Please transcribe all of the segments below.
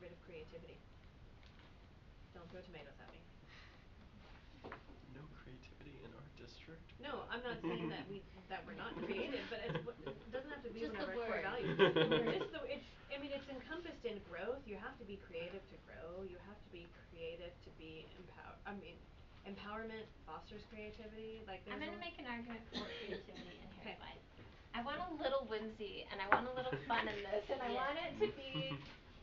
rid of creativity. Don't throw tomatoes at me. No creativity in our district? No, I'm not saying that we that we're not creative, but it's what it doesn't have to be Just one of the our core word. values. Just the word. Just the it's I mean it's encompassed in growth. You have to be creative to grow. You have to be creative to be empower I mean empowerment fosters creativity. Like there's I'm a- gonna make an argument for creativity and 'Kay. here's why. I want a little whimsy and I want a little fun in this and I Yeah. want it to be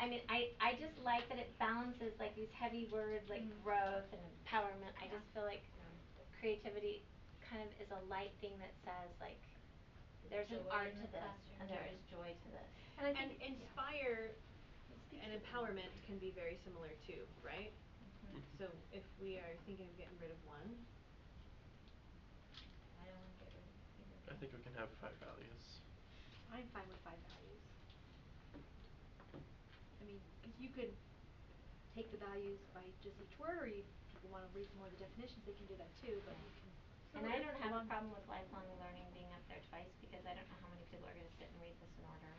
I mean I I just like that it balances like these heavy words like Mm. growth and empowerment. I Yeah. just feel like creativity kind of is a light thing that says like there's an Joy art in to the this and classroom. there Yeah. is joy to this. I and think yeah. inspire It speaks and to me. empowerment can be very similar too, right? So if we are thinking of getting rid of one, I don't wanna get rid of either. I think we can have five values. I'm fine with five values. I mean, 'cause you could take the values by just each word, or you, if people wanna read more of the definitions, they can do that too, but you can. And I don't have a problem with lifelong learning being up there twice because I don't know how many people are gonna sit and read this in order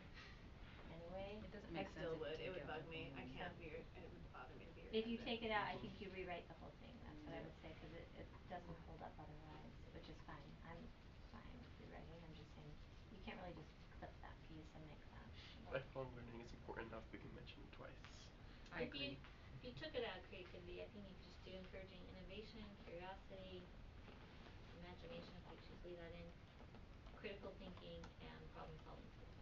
anyway. It doesn't I make sense still if would. you It would take out bug the me. I one. can't be re- it would bother me to be If you redundant. take it out, I think you rewrite the whole thing, that's what I Yeah. would say, 'cause it it doesn't hold up otherwise, which is fine, I'm fine with rewriting, I'm just saying, you can't really just clip that piece and make that work. Lifelong learning is important enough we can mention it twice. I If you agree. if you took it out of creativity, I think you could just do encouraging innovation, curiosity, imagination, if you choose to leave that in, critical thinking and problem solving skills.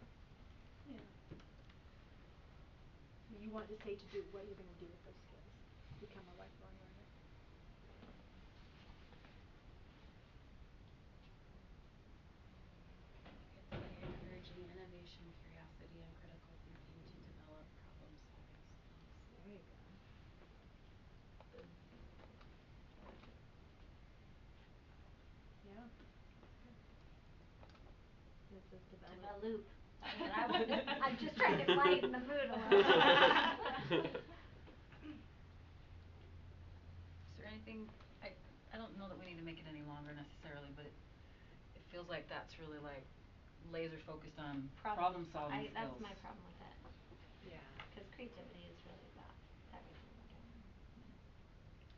Yeah. I mean, You want to say to do what you're gonna do with those skills, become a lifelong learner. It's by encouraging innovation, curiosity, and critical thinking to develop problem-solving skills. There you go. Yeah. This is Kind development. of a loop, that's what I would, I'm just trying to lighten the mood a little. Is there anything, I I don't know that we need to make it any longer necessarily, but it it feels like that's really like laser focused on problem solving I, that's skills. my problem with it, Yeah. 'cause creativity is really about everything we're doing.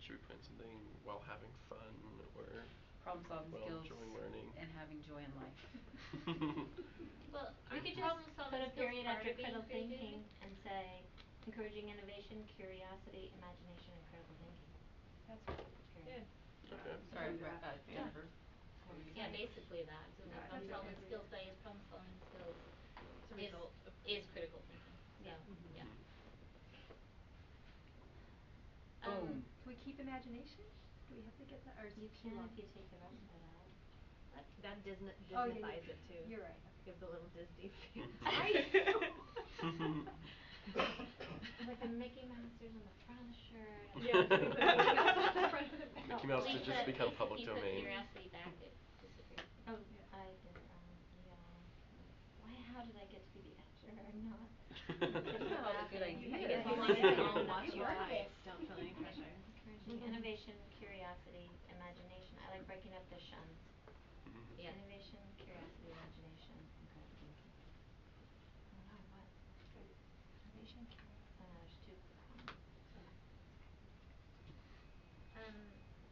Should we put in something while having fun or Problem solving Well, skills enjoying learning. and having joy in life. Well, We aren't could just problem put solving a skills period part of after being critical thinking creativity? and say encouraging innovation, curiosity, imagination, and critical thinking. That's what, period. Yeah. Okay. Sorry, we Paragraph. uh Yeah. Jennifer. what were you Yeah, saying? basically that, so Yeah, that problem that's solving okay. skills, that is problem solving skills It's a is result of is critical thinking, so, Yeah. Mhm. yeah. Mm-hmm. Um, Boom. Can we keep imagination? Do we have to get that, or is You it too can long? if you take the rest of it out. That that Disney Oh, yeah, Disneyfies yeah. it too. You're right, okay. Gives a little Disney feel. Like the Mickey Mousers on the front of the shirt. and- Yeah, it's pretty much Mickey Mouse on the front of it. Mm-hmm. Mickey Oh, Mouse Lisa- did just become Lisa- public Lisa domain. curiosity back, it disappeared. Oh, Yeah. I did it wrong, yeah. Why, how did I get to be the editor and not? You have all the good Happening. ideas. It's all You in all there. want You your are right. eyes. Don't feel any pressure. Encouraging innovation, curiosity, imagination. I like breaking up the shuns. Mhm. Mm-hmm. Yeah. Innovation, curiosity, imagination, and critical thinking. I don't know what. Innovation, curiosity. Uh, there's two columns. Um,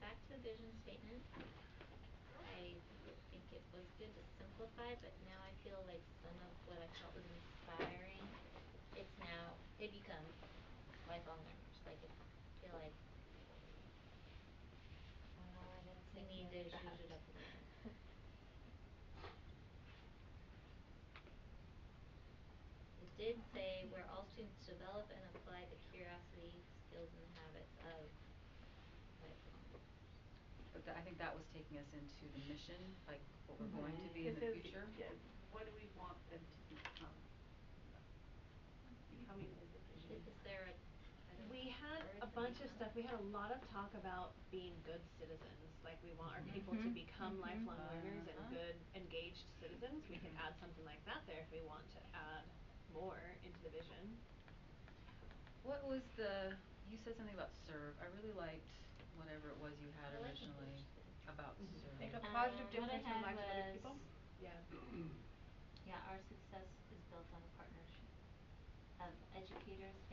back to the vision statement. I think it was good to simplify, but now I feel like some of what I felt was inspiring, it's now, they become lifelong learners, like it feel like Oh, no, I didn't we think need to of that. change it up a little. bit. It did say where all students develop and apply the curiosity, skills and habits of lifelong learners. But tha- I think that was taking us into the mission, like what we're going to be in the future. what do we want them to become? Becoming is the Is is there a, I don't know. We had a bunch of stuff, we had a lot of talk about being good citizens, like we want our people to Mhm. become Mhm. lifelong learners and Uh-huh. good engaged citizens. We could add something like that there if we want to add more into the vision. What was the, you said something about serve, I really liked whatever it was you had I like the originally first. Mm-hmm. about Mhm. serve. Make a Uh, Um, positive what I difference in had the lives of other people? was- Yeah. Yeah, our success is built on a partnership of educators,